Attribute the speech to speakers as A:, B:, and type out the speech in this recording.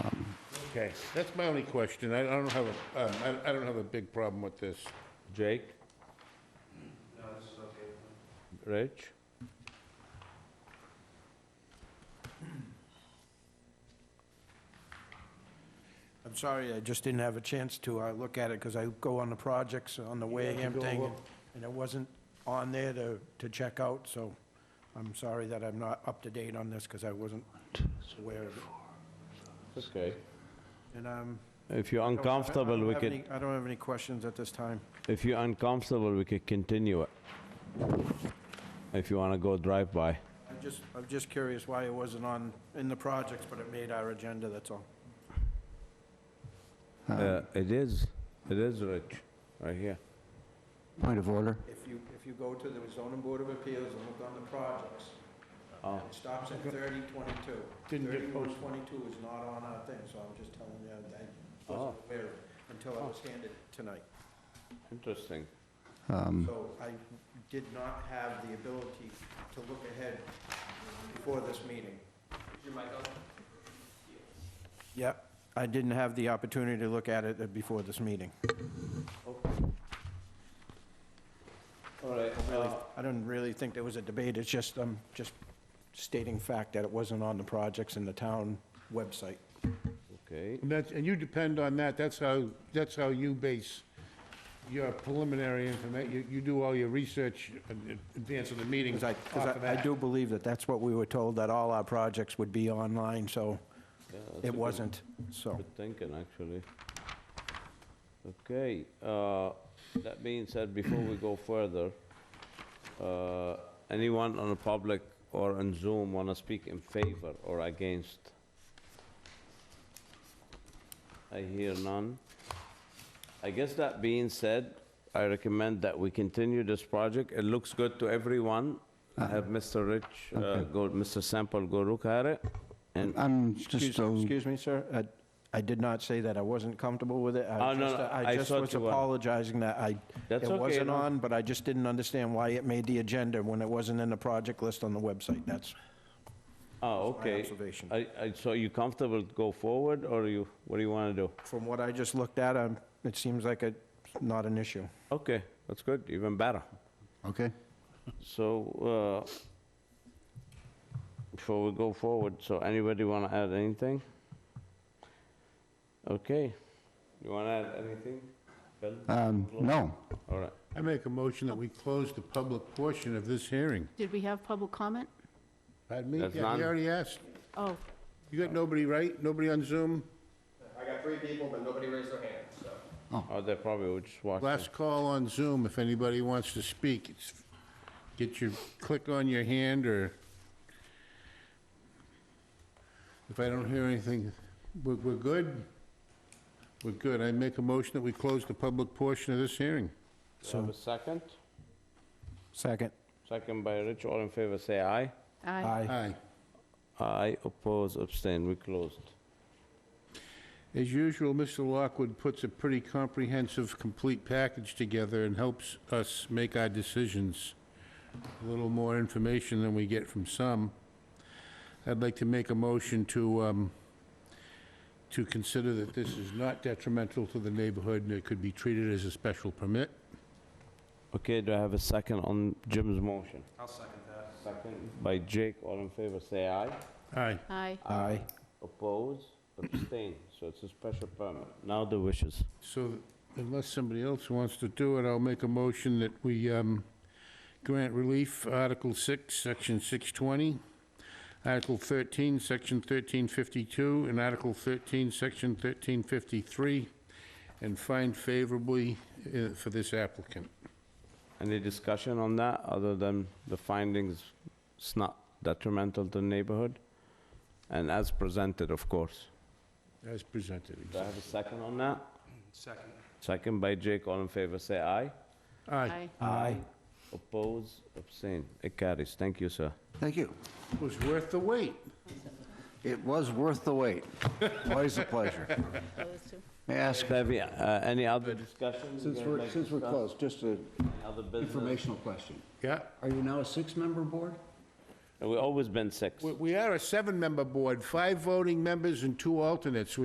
A: Okay, that's my only question. I I don't have, a- um, I I don't have a big problem with this.
B: Jake? No, this is okay. Rich?
C: I'm sorry, I just didn't have a chance to uh, look at it, because I go on the projects on the Wareham thing, and- and it wasn't on there to, to check out, so I'm sorry that I'm not up to date on this, because I wasn't aware of it.
B: Okay.
C: And um,
B: If you're
C: I don't- I- I
B: uncomfortable,
C: don't
B: we
C: have
B: could,
C: any- I don't have any questions at this time.
B: if you're uncomfortable, we could continue it. If you wanna go drive-by.
C: I'm just, I'm just curious why it wasn't on, in the projects, but it made our agenda, that's all.
B: Uh, It is, it is, Rich, right here.
D: Point of order.
C: If you, if you go to the zoning board of appeals and look on the projects, it stops at thirty twenty-two.
A: Didn't get
C: Thirty-one
A: posted.
C: twenty-two is not on our thing, so I'm just telling you, that I wasn't aware of it until I was handed it tonight.
B: Interesting.
C: So I did not have the ability to look ahead before this meeting. Yep, I didn't have the opportunity to look at it before this meeting.
B: All right. uh,
C: Really, I don't really think there was a debate, it's just, I'm just stating fact that it wasn't on the projects in the town website.
B: Okay,
A: And that's, and you depend on that, that's how, that's how you base your preliminary information, you, you do all your research in in advance of the meetings
C: Because I,
A: off
C: because
A: of
C: I I
A: that.
C: do believe that that's what we were told, that all our projects would be online, so
B: that's
C: it wasn't, so.
B: good thinking, actually. Okay, uh, that being said, before we go further, uh, anyone on the public or on Zoom want to speak in favor or against? I hear none. I guess that being said, I recommend that we continue this project. It looks good to everyone. I have Mr. Rich, uh, go, Mr. Sample go look at it, and
D: I'm
C: Excuse
D: just, uh,
C: excuse me, sir, I- I did not say that I wasn't comfortable with it. I
B: Oh, no,
C: just-
B: no, I
C: I just
B: thought
C: was
B: you were.
C: apologizing that I,
B: That's
C: it
B: okay,
C: wasn't
B: no.
C: on, but I just didn't understand why it made the agenda when it wasn't in the project list on the website, that's.
B: Oh,
C: my
B: okay.
C: observation.
B: I, I, so you comfortable to go forward, or you, what do you want to do?
C: From what I just looked at, I'm- it seems like it's not an issue.
B: Okay, that's good, even better.
D: okay.
B: So, uh, before we go forward, so anybody want to add anything? Okay, you want to add anything? Bill?
D: Um, No,
B: All right,
A: I make a motion that we close the public portion of this hearing.
E: Did we have public comment?
A: Pardon me?
B: That's
A: Yeah,
B: none.
A: you already asked.
E: Oh,
A: You got nobody, right? Nobody on Zoom?
F: I got three people, but nobody raised their hand, so.
B: oh, they probably would just watch. it.
A: Last call on Zoom, if anybody wants to speak, it's, get your, click on your hand, or if I don't hear anything, we're, we're good? We're good. I make a motion that we close the public portion of this hearing.
B: Do I Have a second?
C: Second.
B: Second by Rich, all in favor, say aye.
E: aye.
C: Aye.
A: Aye.
B: Aye, oppose, abstain, we closed.
A: As usual, Mr. Lockwood puts a pretty comprehensive, complete package together and helps us make our decisions. A little more information than we get from some. I'd like to make a motion to, um, to consider that this is not detrimental to the neighborhood and it could be treated as a special permit.
B: Okay, do I have a second on Jim's motion? I'll second that. Second by Jake, all in favor, say aye.
A: Aye.
E: Aye.
C: Aye.
B: Oppose, abstain, so it's a special permit. Now the wishes.
A: So unless somebody else wants to do it, I'll make a motion that we um, grant relief, Article 6, Section 620, Article 13, Section 1352, and Article 13, Section 1353, and find favorably uh, for this applicant.
B: Any discussion on that, other than the findings, it's not detrimental to the neighborhood? And as presented, of course.
A: As presented.
B: Do I have a second on that? Second. Second by Jake, all in favor, say aye.
A: Aye.
E: Aye.
C: Aye.
B: Oppose, abstain, it carries. Thank you, sir.
D: thank you.
A: It was worth the wait.
D: It was worth the wait. Always a pleasure.
E: Those two.
D: May I ask,
B: Debbie, uh, any other discussion?
D: since we're, since we're closed, just an
B: Other business?
D: informational question.
A: Yeah.
D: Are you now a six-member board?
B: We've always been six.
A: We- We are a seven-member board, five voting members and two alternates.